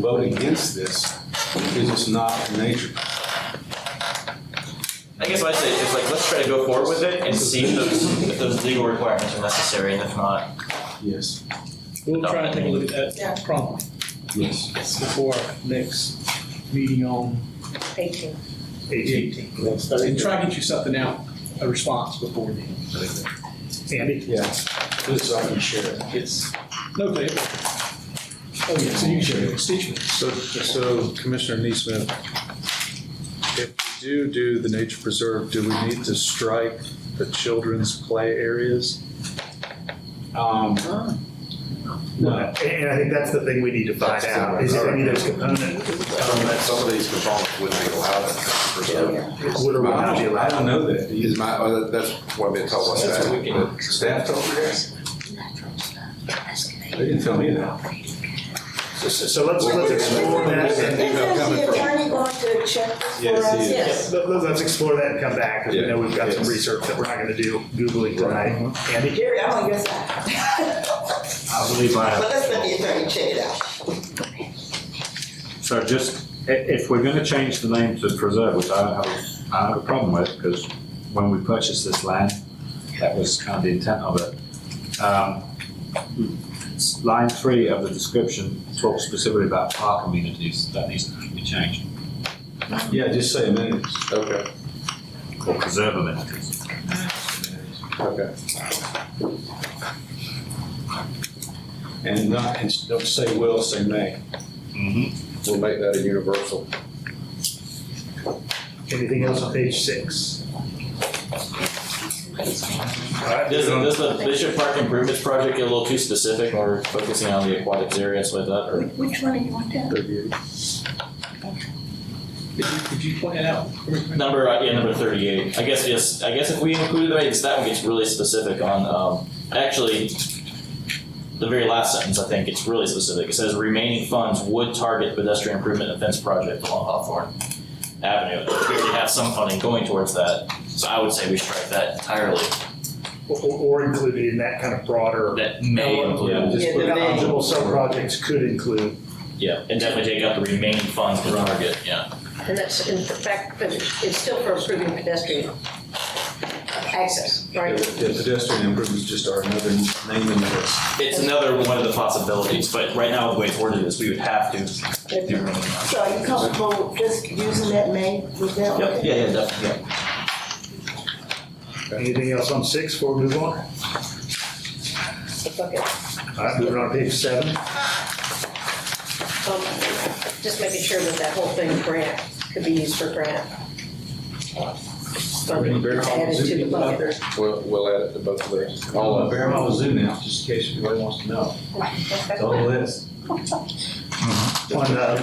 vote against this because it's not nature. I guess what I say is like, let's try to go forward with it and see if those, if those legal requirements are necessary, and if not, Yes. We'll try and take a look at Yeah. that problem Yes. before our next meeting on Thank you. eighteen. And try to get you something out, a response before then. Andy? Yeah, so I can share it. Yes. Okay. Oh, yeah, so you can share your constituents. So, so Commissioner Neesmith, if we do do the nature preserve, do we need to strike the children's play areas? Um, no, And and I think that's the thing we need to find out, is if any of those components Some of these components wouldn't be allowed in the preserve. would or would I not be don't, I allowed. don't know that. Is my, oh, that- that's what they told us. That's what we can- The Staff told you that? They didn't tell me that. So- So so let's, let's explore that, Isn't and- the email coming the from- attorney going to check this for Yes, us? he is. Yes. let- let- let's explore that and come back, because we know we've got some Yes. research that we're not gonna do Googling tonight. Andy? Gary, I'm on your side. I believe I But have. let's let the attorney check it out. So just, i- if we're gonna change the name to preserve, which I have, a- I have a problem with, because when we purchased this land, that was kind of the intent of it. Um, s- Line three of the description talks specifically about park amenities, that needs to be changed, Yeah, just say amenities. Okay, or preserve amenities. okay. And not, and don't say will, say may. Mm-hmm. We'll make that a universal. Anything else on page six? All right, does, does the Bishop Park improvements project get a little too specific when we're focusing on the aquatics area, so I thought, or? Which one do you want that? Could you, could you point it out? Number, uh, yeah, number thirty-eight, I guess, yes, I guess if we included, right, it's that one gets really specific on, um, actually, the very last sentence, I think, it's really specific, it says remaining funds would target pedestrian improvement and fence project along Hawthorne Avenue, it appears you have some funding going towards that, so I would say we strike that entirely, Or, or or included in that kind of broader, that Oh, may include, Just Yeah, put the may. eligible sub-projects could include yeah, and definitely take out the remaining funds to target, yeah. And that's in fact, but it's still for improving pedestrian access, The right? the pedestrian improvements just are another name in the list. It's another one of the possibilities, but right now, the way it's worded is we would have to do remaining funds. So are you comfortable just using that name with that one? Yep, yeah, yeah, definitely, yeah. Anything else on six before we move on? Okay. All right, moving on to page seven. Um, Just making sure that that whole thing grant could be used for grant. Bring Bear Hall Added to the Zoo out bucket. there. We'll, we'll add it to both of those. All All of of Bear Hall Zoo now, just in case anybody wants to know. It's on the list. On, uh,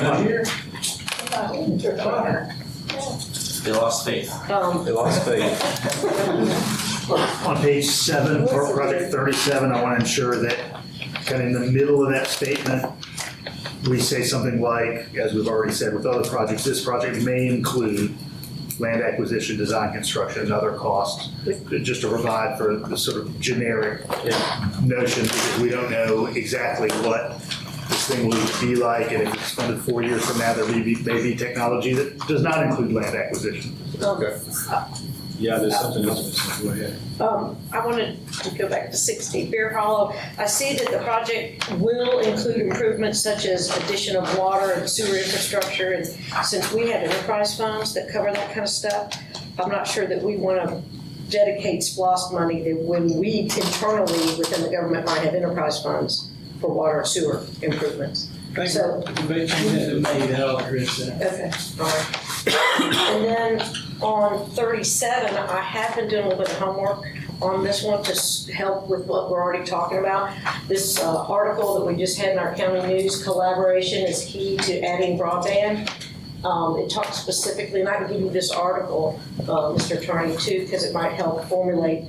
They lost faith. Um, They lost faith. on- on page seven, for project thirty-seven, I want to ensure that kind of in the middle of that statement, we say something like, as we've already said with other projects, this project may include land acquisition, design, construction, and other costs, just to provide for the sort of generic notion, because we don't know exactly what this thing will be like, and if it's funded four years from now, there may be, may be technology that does not include land acquisition. Yeah, there's something else missing. Go ahead. Um, I wanted to go back to sixty, Bear Hollow. I see that the project will include improvements such as addition of water and sewer infrastructure. And since we have enterprise funds that cover that kind of stuff, I'm not sure that we want to dedicate splos money that when we internally within the government might have enterprise funds for water and sewer improvements. Thank So- you. If you change that to may, that'll address that. Okay, all right. And then on thirty-seven, I have been doing a little bit of homework on this one to s- help with what we're already talking about. This uh, article that we just had in our county news, collaboration is key to adding broadband. Um, It talks specifically, and I can give you this article, uh, Mr. Attorney, too, because it might help formulate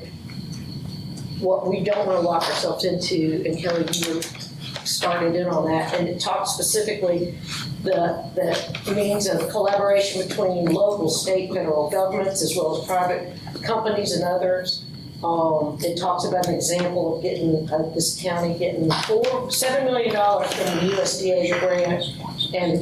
what we don't want to lock ourselves into, and Kelly, you were started in on that. And it talks specifically the, the means of collaboration between local, state, federal governments, as well as private companies and others. Um, it talks about an example of uh, getting, of this county getting four, seven million dollars from the USDA grant And